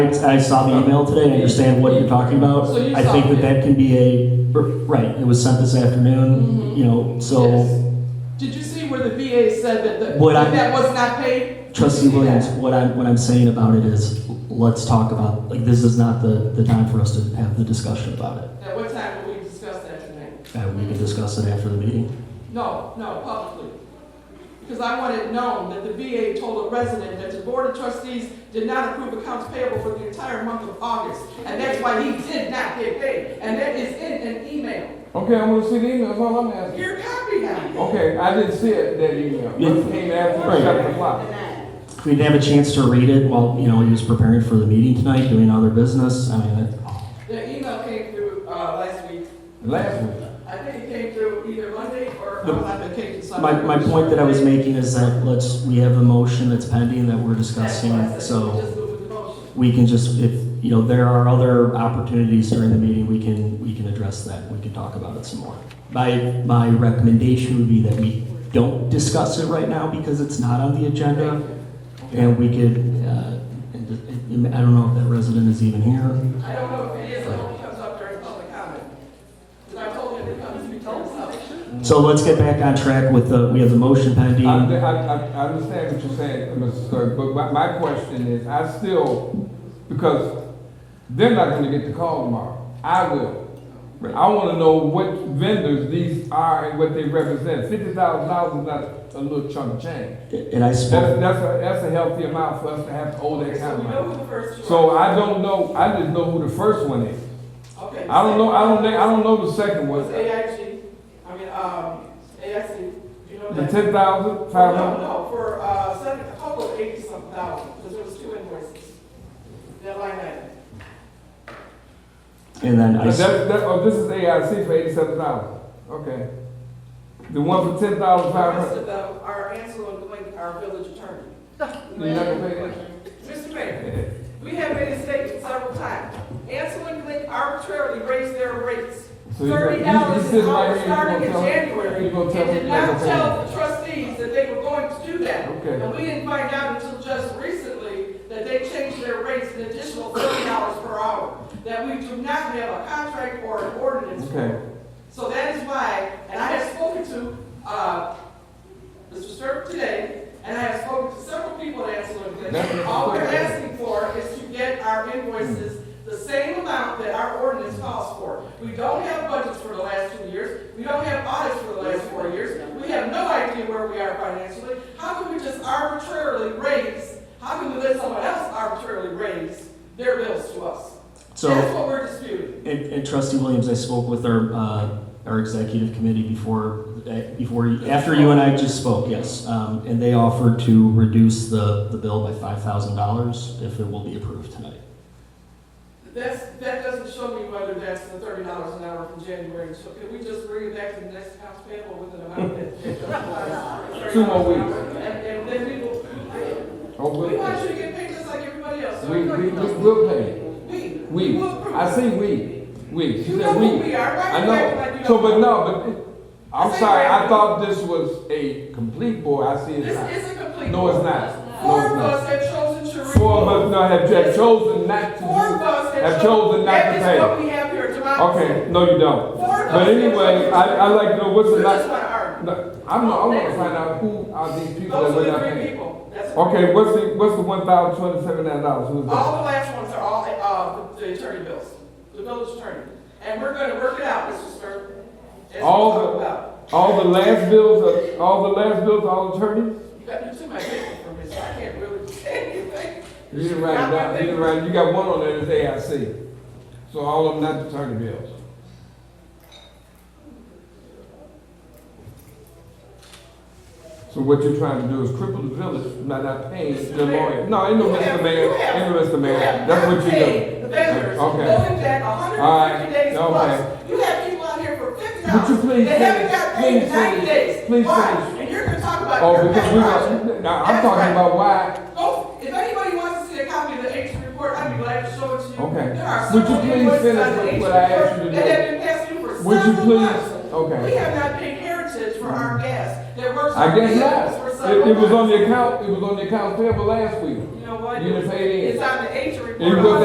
I saw the email today, I understand what you're talking about. So you I think saw it. that that can be a, right, it was sent this Mm-hmm. afternoon, you know, so Yes. Did you see where the VA said that, the- What I- that that was not paid? trustee Williams, what I'm, what I'm saying about it is, let's talk about, like, this is not the, the time for us to have the discussion about it. At what time will we discuss that tonight? And we can discuss it after the meeting. No, no, publicly. Because I want it known that the VA told a resident that the Board of Trustees did not approve accounts payable for the entire month of August. And that's why he did not get paid. And that is in an email. Okay, I want to see the email, that's all I'm asking. Your copy now. Oh, Okay, I didn't see it, that email. Yeah. It came after Right. seven o'clock. If we didn't have a chance to read it while, you know, he was preparing for the meeting tonight, doing other business, I mean, that- The email came through, uh, last week. Last week. I think it came through either Monday or The- on my vacation. so I my, my point that I was making is that let's, we have a motion that's pending that we're That's why I discussing, said so. just move with the motion. we can just, if, you know, there are other opportunities during the meeting, we can, we can address that, we can talk about it some more. My, my recommendation would be that we don't discuss it right now because it's not on the uh, agenda. And we could, uh, and- and I don't know if that resident is even here. I don't know if it is, I hope it comes up during public comment. Because I told him it comes to be told something. So let's get back on track with the, we have the motion I, I, pending. I I understand what you're saying, Mr. Stern, but my, my question is, I still, because they're not gonna get the call tomorrow. I will. Right. I wanna know what vendors these are and what they represent. Fifty thousand dollars is not a little chunk of change. And I That's, spoke, that's a, that's a healthy amount for us to have to owe that So kind we of know money. who the first two So are. I don't know, I just know who the first one is. Okay. I don't know, I don't, think- I don't know the second Was one. AIG, I mean, um, AIC, you know The that? ten thousand, five No, hundred? no, for, uh, seven, a couple of eighty something thousand, because there was two invoices. That line item. and then I, That, s- that, oh, this is AIC for eighty-seven thousand, okay. The one for ten thousand, The five rest hundred? of them are Ansel and Blake, our village attorney. You're not gonna pay Mr. Mayor, we have made a statement several times. Ansel and Blake arbitrarily raised their rates. So you- Thirty you- you dollars sit an right hour here, you starting gonna in tell- January. you gonna And tell did them not they're gonna tell the trustees that they were going to do that. Okay. And we didn't find out until just recently that they changed their rates an additional thirty dollars per hour. That we do not have a contract or an ordinance it. Okay, so that is why, and I have spoken to, uh, Mr. Sturp today, and I have spoken to several people at Anselon Glen. All we're asking for is to get our invoices the same amount that our ordinance calls for. We don't have budgets for the last two years, we don't have audits for the last four years, we have no idea where we are financially. How can we just arbitrarily raise, how can we let someone else arbitrarily raise their bills to us? so. That's what we're disputing. And, and trustee Williams, I spoke with our, uh, our executive committee before, eh, before, after you and I just spoke, yes. Um, and they offered to reduce the, the bill by five thousand dollars if it will be approved tonight. That's, that doesn't show me whether that's the thirty dollars an hour from January, so can we just bring it back to the next house payable with an amount that? Two more weeks. And, and then we will, we oh, we'll, want pay. you to get paid just like everybody else. so we, we, everybody we knows. will pay. We, we We, will approve. I say we, we, she You said know who we. we are, right? I Act like know, you so, don't but no, but, I'm Say sorry, right. I thought this was a complete board, I see it's not. This is a complete. No, it's not. Four No, of it's not. us have chosen to. Four of remove. us now have, have chosen not to. Four of us have. have cho- chosen not to That pay. is what we have here, democracy. Okay, no, you don't. Four of us. But anyway, have I, I chosen- like to know what's You the last. just wanna argue. No, I'm not, I want to find out who are these people that Those were are not the three paying. people. That's- Okay, what's the, what's the one thousand twenty-seven dollars? Who's that? All the last ones are all, uh, the attorney bills, the village attorney. And we're gonna work it out, Mr. Stern. as we All talk the- about. All the last bills, are- all the last bills, all attorneys? You got, you took my paper from me, so I can't really say anything. You didn't write it down, you didn't write, you got one on there that's AIC. So all of them not attorney bills. So what you're trying to do is cripple the village, by not paying the lawyer. No, ain't no You have- Mr. Mayor, you have- ain't no Mr. You Mayor, have that's what you do. paid The vendors, Okay. going back All hundred and fifty right. days plus. Okay. You have people out here for fifty Would you dollars, please they haven't finish? got paid in Please ninety finish. days. Please Why? finish. And you're gonna talk about. Oh, your because pet we project. got, now, I'm That's right. talking about why, Oh, if anybody wants to see a copy of the ancient report, I'd be glad to show it to you. Okay. There are Would you several please invoices finish on the with ancient what I asked you to report That do? have been passed to you for Would you several please- okay. months. Mm-hmm. We have not paid heritage for our gas that works. I our guess vehicles not. for It, several it was on months. the account, it was on the account payable last week. You know what? You didn't pay it in. It's on the ancient report. It was-